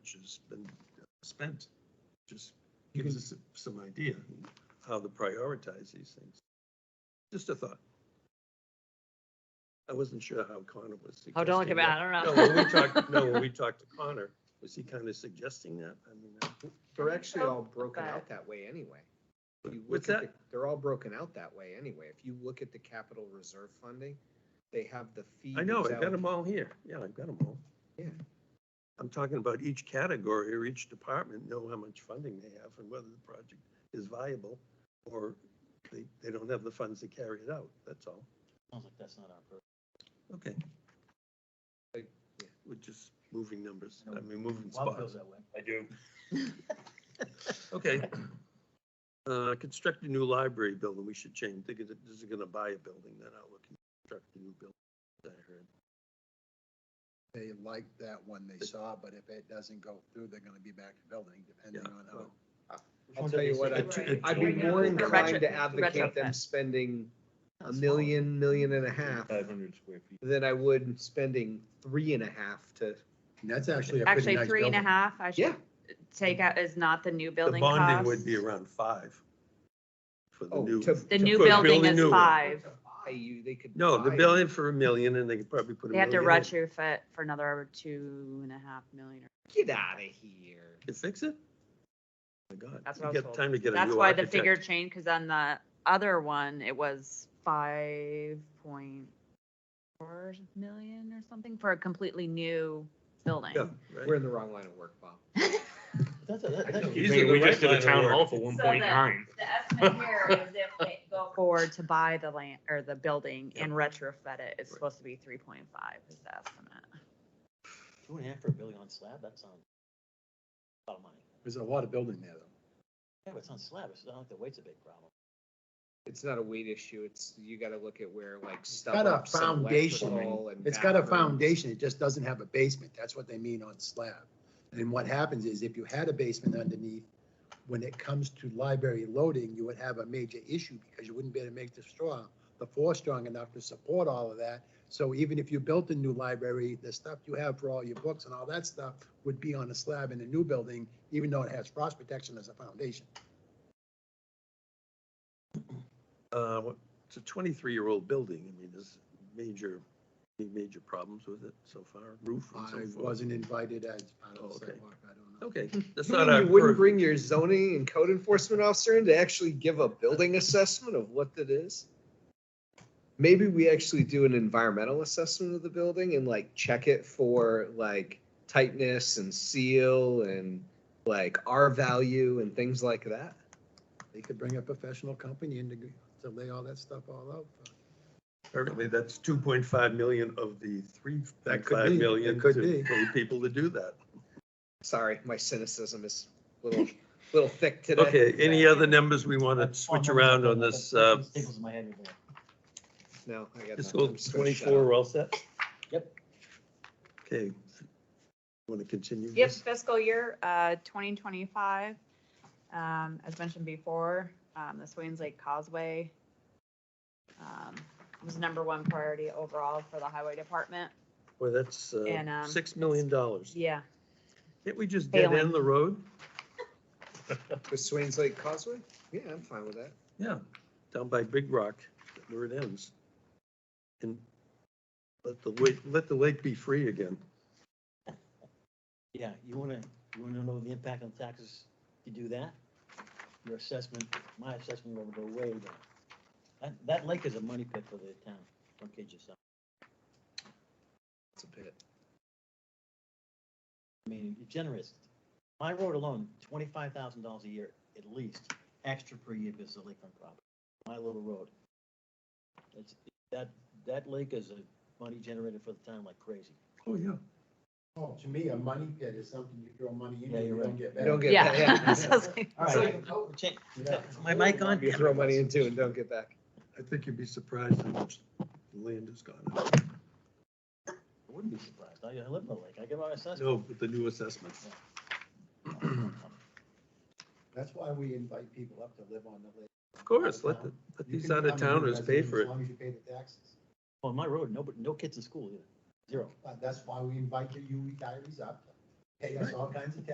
much has been spent. Just gives us some idea how to prioritize these things. Just a thought. I wasn't sure how Connor was suggesting. Oh, don't look at me, that. I No, don't know. when we talked, no, when we talked to Connor, was he kind of suggesting that? I mean, uh, They're actually all broken Okay. out that way anyway. If you What's look at that? the- They're all broken out that way anyway. If you look at the capital reserve funding, they have the fee. I know, that's I've got them alloc- all here. Yeah, I've got them all. Yeah. I'm talking about each category or each department, know how much funding they have and whether the project is viable or they, they don't have the funds to carry it out, that's all. Sounds like that's not our purpose. Okay. Like, yeah. We're just moving numbers, I mean, moving Bob spots. feels that way. I do. Okay. Uh, construct a new library building, we should change, think of it- this is gonna buy a building, then I'll look, construct a new building, I heard. they like that one they saw, but if it doesn't go through, they're gonna be back to building, depending Yeah, on well, how. I'll tell you what, It's- I'd, it's- I'd be more Retro- inclined to retrofit. advocate them spending a million, million and a half hundred square feet. than I would spending three and a half to, And that's actually a pretty Actually, nice three and a building. half, I yeah. should take out, is not the new The building bonding would cost. be around five for the Oh, new. to- The to new for a building building is new one. five. buy you, they could. No, the buy- billion for a million and they could probably put a They have to million in. retrofit for another two and a half million. or- Get out of here. Could fix it? Oh My God. That's you what I was get told. Time to get a That's new why the architect. figure changed, because on the other one, it was five point four million or something for a completely new building. Yeah, We're right. in the wrong line of work, Bob. That's, that, that's. You think we just did a town hall for So one that- point nine. The estimate here is if they go forward to buy the land or the building Yeah. and retrofit it, it's Right. supposed to be three point five is the estimate. Two and a half for a building on slab, that sounds. A lot of money. There's a lot of building there, though. Yeah, but it's on slab, it's not like the weight's a big problem. It's not a weight issue. It's, you gotta look at where like stuff. got a foundation. It's got a foundation, it just doesn't have a basement, that's what they mean on slab. And what happens is if you had a basement underneath, when it comes to library loading, you would have a major issue because you wouldn't be able to make the straw, the floor strong enough to support all of that. So even if you built a new library, the stuff you have for all your books and all that stuff would be on a slab in a new building, even though it has frost protection as a foundation. Uh, what- it's a twenty-three-year-old building. I mean, there's major, any major problems with it so far, roof and so I forth. wasn't invited as part Oh, of the okay. sidewalk, I don't know. Okay, that's You not mean our you wouldn't purview. bring your zoning and code enforcement officer in to actually give a building assessment of what that is? Maybe we actually do an environmental assessment of the building and like check it for like tightness and seal and like R value and things like that. They could bring a professional company in to, g- to lay all that stuff all out. for- Apparently, that's two point five million of the three, That that could five be, million that could to, be. for people to do that. Sorry, my cynicism is a little, little thick today. Okay, any other numbers we want to switch around on this, uh, Tickles my head. over there. No, I got fiscal nothing. I'm just gonna shut up. twenty-four, we're all set? Yep. Okay. Want to continue? Yep, this? fiscal year, uh, twenty twenty-five. Um, as mentioned before, um, the Swains Lake Causeway. Um, was number one priority overall for the highway department. Well, that's, And, uh, um, six million dollars. Yeah, Can't we just dead failing. end the road? With Swains Lake Causeway? Yeah, I'm fine with that. Yeah, down by Big Rock, where it ends. And let the lake, let the lake be free again. Yeah, you wanna, you wanna know the impact on taxes, you do that, your assessment, my assessment will go way down. That, that lake is a money pit for the town, don't kid yourself. It's a pit. I mean, you're generous. My road alone, twenty-five thousand dollars a year at least, extra per year because of the lakefront property. My little road. It's, that, that lake is a money generator for the town like crazy. Oh, yeah. Oh, to me, a money pit is something you throw money in Yeah, and you you're don't right. get You back. don't get that, yeah. yeah. So I was like- All right, check- my mic on? You throw money into and don't get back. I think you'd be surprised how much land has gone up. I wouldn't be surprised. I I live in the lake. I get my assessment. No, with the new assessment. Mm-hmm. That's why we invite people up to live on the lake. Of course, let, the- let You these can out of become a new towners pay resident for As it. long as you pay the taxes. Oh, On my road, no, no kids in school either. Zero. But that's why we invite the you retirees E up. pay us all kinds of taxes.